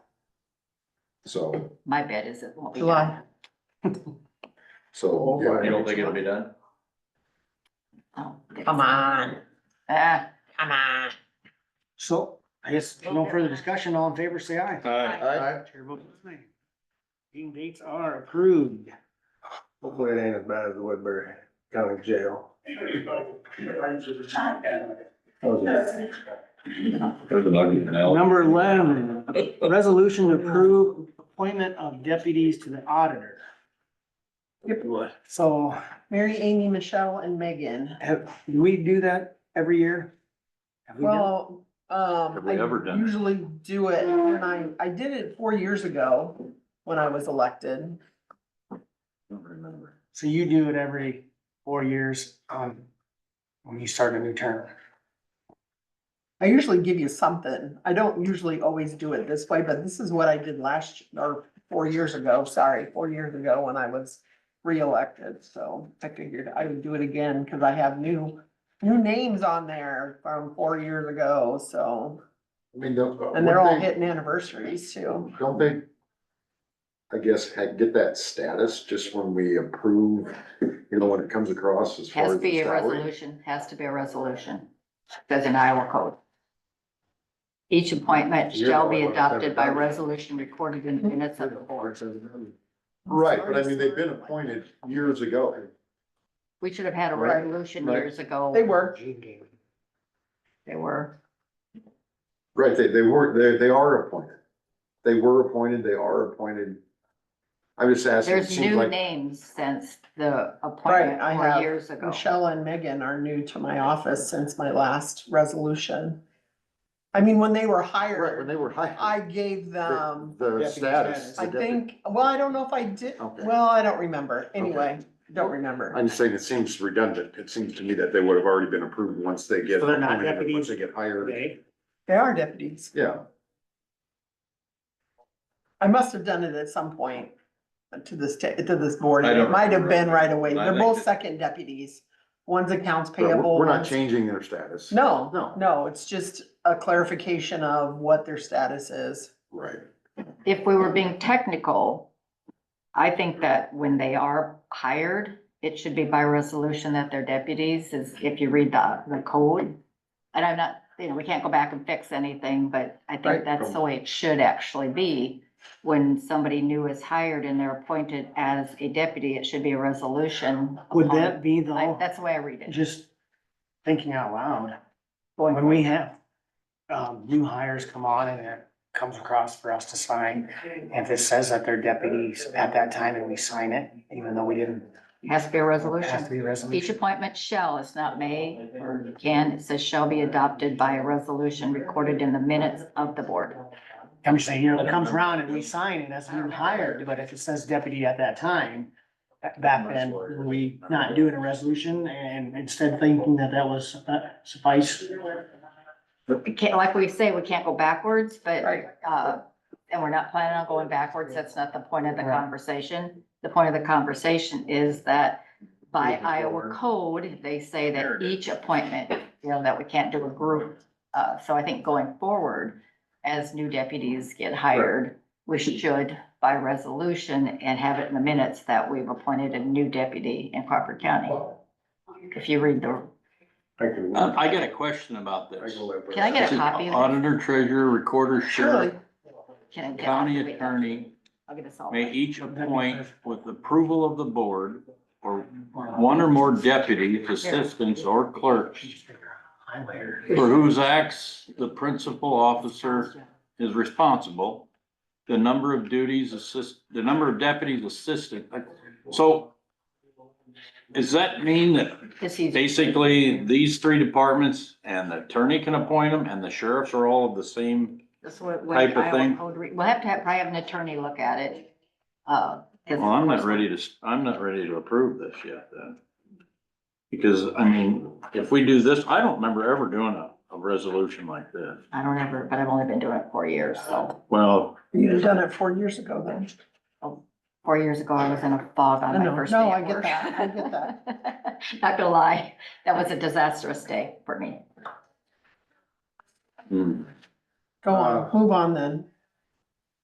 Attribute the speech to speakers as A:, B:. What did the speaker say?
A: So,
B: My bet is it won't be.
C: July.
B: done.
A: so. yeah,
D: You don't think it'll be done?
B: Oh, okay.
C: Come on,
B: Ah,
C: come on.
E: So I guess no further discussion. All in favor, say aye.
A: I,
E: Chair votes aye. Meeting dates are approved.
F: Hopefully it ain't as bad as the Woodbury County Jail. That
D: There's an argument
A: Oh.
D: now.
E: Number eleven, resolution to approve appointment of deputies to the auditor. So
C: Mary, Amy, Michelle and Megan.
E: have, do we do that every year? Have we done-
C: Well, um,
D: Have we ever
C: I
D: done it?
C: usually do it, and I, I did it four years ago when I was elected.
D: Don't remember.
E: So you do it every four years, um, when you start a new term.
C: I usually give you something. I don't usually always do it this way, but this is what I did last, or four years ago, sorry, four years ago when I was reelected, so I figured I would do it again, cause I have new, new names on there from four years ago, so.
A: mean, don't.
C: And they're all
A: wouldn't they-
C: hitting anniversaries too.
A: Don't they? I guess, had, get that status just when we approve, you know, when it comes across as far
B: Has
A: as
B: to be
A: the
B: a
A: salary.
B: resolution, has to be a resolution, says in Iowa code. Each appointment
F: You're the
B: shall be
F: only one that's
B: adopted
F: ever
B: by
F: done it.
B: resolution recorded in the
C: Mm-hmm.
B: minutes of the board.
A: Right, but I mean, they've been appointed years ago.
B: We should have had a
A: Right.
B: resolution
A: Right.
B: years ago.
C: They were,
B: They were,
A: Right, they, they were, they, they are appointed. They were appointed, they are appointed. I'm just asking, it
B: there's
A: seems
B: new
A: like,
B: names since the
C: right,
B: appointment
C: I
B: four
C: have,
B: years
A: Oh.
B: ago.
C: Michelle and Megan are new to my office since my last resolution. I mean, when they were
A: right, when
C: hired,
A: they were hired.
C: I gave them.
A: The the
E: Deputy
A: status.
E: status.
A: the
C: I
A: deputy-
C: think, well, I don't know if I did,
A: Okay.
C: well, I don't remember, anyway, don't remember.
A: I'm just saying it seems redundant. It seems to me that they would have already been approved once they get.
E: So they're not
A: appointed,
E: deputies
A: Once they get hired.
E: Okay.
C: They are deputies,
A: Yeah,
C: I must have done it at some point uh, to this, ta- to this board,
D: I
C: it
D: don't
C: might have
D: remember.
C: been right away,
D: I
C: they're
D: think
C: both
D: that-
C: second deputies. One's accounts
A: but we're,
C: payable.
A: we're not
C: one's-
A: changing their status.
C: No,
A: No.
C: no, it's just a clarification of what their status is.
A: Right.
B: if we were being technical, I think that when they are hired, it should be by resolution that they're deputies, is if you read the, the code. And I'm not, you know, we can't go back and fix anything, but I think
C: Right.
B: that's the way it should actually be. When somebody new is hired and they're appointed as a deputy, it should be a resolution.
E: Would
B: upon-
E: that be
B: I-
E: though,
B: That's the way I read it.
E: just thinking out loud, when we have um, new hires come on and it comes across for us to sign, and if it says that they're deputies at that time and we sign it, even though we didn't.
B: Has to be a
E: it Has to
B: resolution.
E: be a
B: Each
E: resolution.
B: appointment shall, it's not may or can, it says shall be adopted by a resolution recorded in the minutes of the board.
E: I'm just saying, you know, it comes around and we sign it as a new hire, but if it says deputy at that time, ba- back then, were we not doing a resolution and instead thinking that that was uh, suffice?
B: We can't, like we say, we can't go backwards, but,
C: Right.
B: uh, and we're not planning on going backwards. That's not the point of the
E: Right.
B: conversation. The point of the conversation is that by
A: Moving
B: Iowa
A: forward.
B: code, they say that each appointment, you know, that we can't do a group. Uh, so I think going forward, as new deputies get hired, we should by resolution and have it in the minutes that we've appointed a new deputy in Crawford County. If you read the,
A: I can,
G: Uh,
A: I
G: I got a question about this.
A: can live with
B: Can I get
A: that.
B: a copy of this?
G: Auditor, treasurer, recorder, sheriff,
C: Surely,
B: can I get?
G: county attorney
B: I'll get us all.
G: may each appoint with approval of the board or one or more deputies, assistants, or clerks for whose acts the principal officer is responsible, the number of duties assist, the number of deputies assistant. So does that mean that
B: This is-
G: basically these three departments and the attorney can appoint them and the sheriffs are all of the same?
B: That's what, what
G: type of
B: Iowa
G: thing.
B: code, re- we'll have to have, probably have an attorney look at it. uh, Well,
G: Well, I'm not ready to, s- I'm not ready to approve this yet then. Because, I mean, if we do this, I don't remember ever doing a, a resolution like this.
B: I don't ever, but I've only been doing it four years, so,
G: Well,
C: you'd have done it four years ago then.
B: four years ago, I was in a fog on
C: I know.
B: my first day
C: No, I
B: at
C: get
B: work.
C: that. I get that.
B: Not gonna lie, that was a disastrous day for me.
G: hmm,
C: Go on, move on then.